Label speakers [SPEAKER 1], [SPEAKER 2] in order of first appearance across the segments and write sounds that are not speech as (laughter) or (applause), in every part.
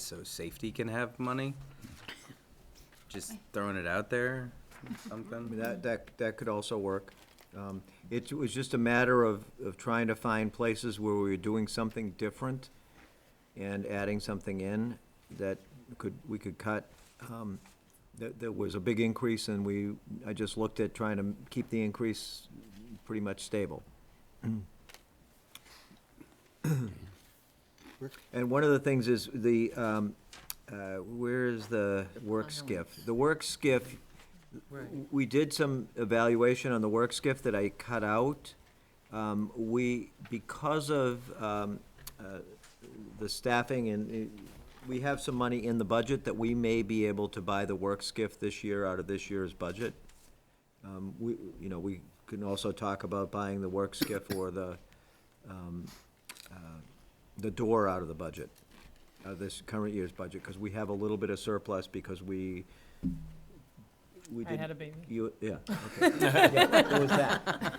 [SPEAKER 1] so safety can have money? Just throwing it out there,
[SPEAKER 2] I mean,
[SPEAKER 1] something?
[SPEAKER 2] That, that, that could also work. Um, It was just a matter of, of trying to find places where we were doing something different and adding something in that could, we could cut. Um, That, that was a big increase and we, I just looked at trying to keep the increase pretty much stable. And one of the things is the, um, uh, where is the work skiff? The work skiff, we did some evaluation on the work skiff that I cut out. Um, We, because of um, uh, the staffing and, uh, we have some money in the budget that we may be able to buy the work skiff this year out of this year's budget. Um, We, you know, we can also talk about buying the work skiff or the, um, uh, the door out of the budget, out of this current year's budget, because we have a little bit of surplus because we, we
[SPEAKER 3] I
[SPEAKER 2] didn't.
[SPEAKER 3] had a baby,
[SPEAKER 2] You, yeah, okay. Yeah, It was that.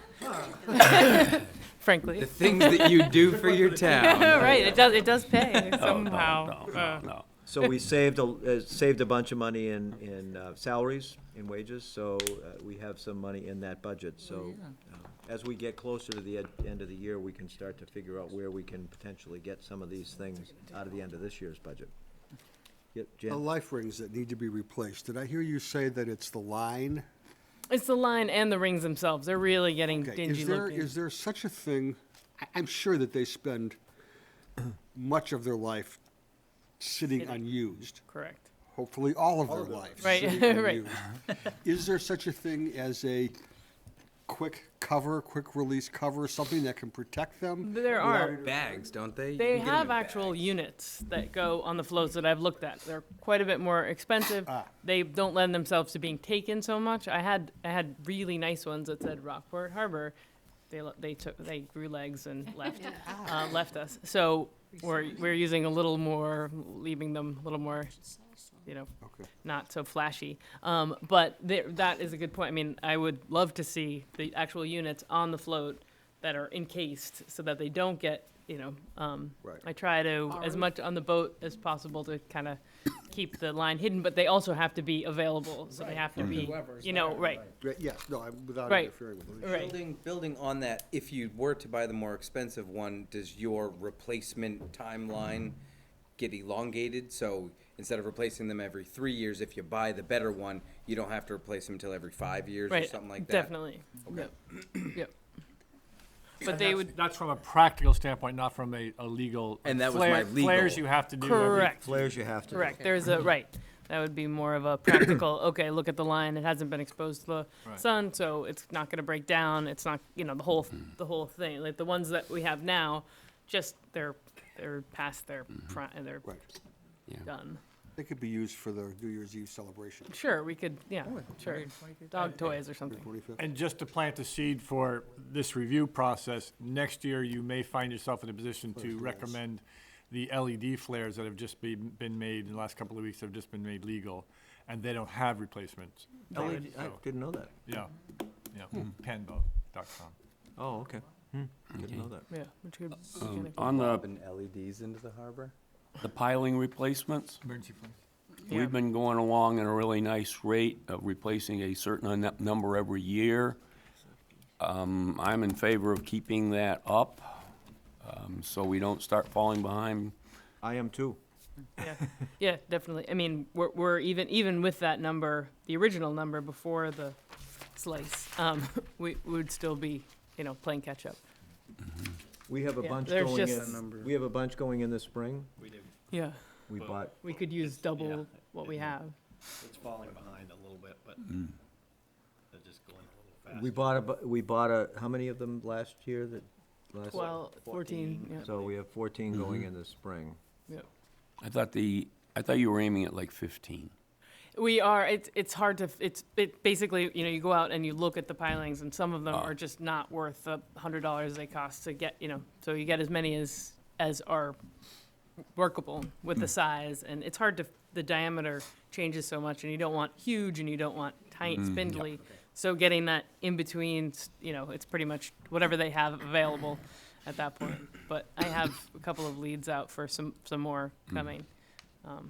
[SPEAKER 1] The
[SPEAKER 3] frankly. (laughs)
[SPEAKER 1] things that you (laughs) do for your town.
[SPEAKER 3] Right, it does, it does
[SPEAKER 4] (laughs) Oh,
[SPEAKER 3] pay
[SPEAKER 5] No, no,
[SPEAKER 3] somehow.
[SPEAKER 5] No, no,
[SPEAKER 3] Uh,
[SPEAKER 5] no.
[SPEAKER 2] So we saved, a uh, saved a bunch of money in, in uh, salaries, in wages, so uh, we have some money in that budget,
[SPEAKER 3] Oh,
[SPEAKER 2] so. uh, As we get closer to the ed- end of the year, we can start to figure out where we can potentially get some of these things out of the end of this year's budget. Yeah,
[SPEAKER 4] The
[SPEAKER 2] Jen,
[SPEAKER 4] life rings that need to be replaced, did I hear you say that it's the line?
[SPEAKER 3] It's the line and the rings themselves. They're really getting
[SPEAKER 4] Okay,
[SPEAKER 3] dingy
[SPEAKER 4] is there,
[SPEAKER 3] looking.
[SPEAKER 4] is there such a thing, I, I'm sure that they (clears throat) spend much of their life sitting unused,
[SPEAKER 3] Correct.
[SPEAKER 4] hopefully all of Uh-huh. their life.
[SPEAKER 3] Right, (laughs)
[SPEAKER 4] sitting
[SPEAKER 3] right.
[SPEAKER 4] unused. Is there such a thing as a quick cover, quick release cover, something that can protect them?
[SPEAKER 3] There are.
[SPEAKER 1] Bags, don't they? You can
[SPEAKER 3] They
[SPEAKER 1] get 'em
[SPEAKER 3] have
[SPEAKER 1] in
[SPEAKER 3] actual
[SPEAKER 1] bags.
[SPEAKER 3] units that go on the floats that I've looked at. They're quite a bit more expensive.
[SPEAKER 4] Ah.
[SPEAKER 3] They don't lend themselves to being taken so much. I had, I had really nice ones that said Rockport Harbor. They, le- they took, they grew legs and left, uh, left us. So we're, we're using a little more, leaving them a little more, you know, not so flashy. Um, but there, that is a good point. I mean, I would love to see the actual units on the float that are encased so that they don't get, you know, um,
[SPEAKER 4] Right.
[SPEAKER 3] I try to, as much on the boat as possible to kind of keep the line hidden, but they also have to be available. So they have to be, you know, right,
[SPEAKER 4] Right, Yes, no, I'm- without
[SPEAKER 3] Right.
[SPEAKER 4] interfering with it.
[SPEAKER 3] right.
[SPEAKER 1] Building, building on that, if you were to buy the more expensive one, does your replacement timeline get elongated? So instead of replacing them every three years, if you buy the better one, you don't have to replace them until every five years or
[SPEAKER 3] Right,
[SPEAKER 1] something like that?
[SPEAKER 3] definitely. Yep, yep. But they would,
[SPEAKER 5] That's from a practical standpoint, not from a, a legal.
[SPEAKER 1] And that was my
[SPEAKER 5] Flare- Flares
[SPEAKER 1] legal.
[SPEAKER 5] you have to do. every-
[SPEAKER 3] correct,
[SPEAKER 2] flares you have to do.
[SPEAKER 3] correct. There's a, right. That would be more of a practical, (clears throat) okay, look at the line. It hasn't been exposed to the
[SPEAKER 5] Right.
[SPEAKER 3] sun, so it's not going to break down. It's not, you know, the whole, the whole thing. Like the ones that we have now, just they're, they're past their, pri- they're
[SPEAKER 4] Right.
[SPEAKER 3] done.
[SPEAKER 4] They could be used for the New Year's Eve celebration,
[SPEAKER 3] Sure, we could, yeah, sure. Dog toys or something.
[SPEAKER 4] 25th.
[SPEAKER 5] And just to plant the seed for this review process, next year you may find yourself in a position to recommend the LED flares that have just been, been made in the last couple of weeks, have just been made legal, and they don't have replacements.
[SPEAKER 3] E
[SPEAKER 2] LED I
[SPEAKER 5] So,
[SPEAKER 2] didn't know that.
[SPEAKER 5] Yeah, yeah,
[SPEAKER 3] Hmm.
[SPEAKER 5] panbo.com.
[SPEAKER 2] Oh, okay. Hmm, Didn't know that.
[SPEAKER 3] Yeah, which could,
[SPEAKER 6] Um, On the,
[SPEAKER 1] Putting LEDs into the harbor?
[SPEAKER 6] the piling replacements,
[SPEAKER 5] Emergency plans.
[SPEAKER 3] Yeah.
[SPEAKER 6] we've been going along at a really nice rate of replacing a certain un- number every year. Um, I'm in favor of keeping that up, um, so we don't start falling behind.
[SPEAKER 2] I am too.
[SPEAKER 3] yeah, yeah, definitely. I mean, we're, we're even even with that number, the original number before the slice, um, (laughs) we would still be, you know, playing catch up.
[SPEAKER 2] We have a
[SPEAKER 3] Yeah,
[SPEAKER 2] bunch
[SPEAKER 3] there's
[SPEAKER 2] going
[SPEAKER 3] just-
[SPEAKER 2] in, we have a bunch going in the spring.
[SPEAKER 3] Yeah,
[SPEAKER 2] We bought
[SPEAKER 3] we could use double what we have.
[SPEAKER 7] It's falling behind a little bit, but they're just going a little
[SPEAKER 2] We
[SPEAKER 7] faster.
[SPEAKER 2] bought a, bu- we bought a, how many of them last year that, last?
[SPEAKER 3] Well, fourteen. Yeah,
[SPEAKER 2] So we have fourteen going in the spring.
[SPEAKER 3] yeah.
[SPEAKER 6] I thought the, I thought you were aiming at like fifteen.
[SPEAKER 3] We are. It's it's hard to. f- It's it basically you know you go out and you look at the pilings and some of them are just not worth the hundred dollars they cost to get you know. So you get as many as as are workable with the size and it's hard to the diameter changes so much and you don't want huge and you don't want tight spindly. So getting that in between, s- you know, it's pretty much whatever they have available at that point. But I have a couple of leads out for some some more coming. Um,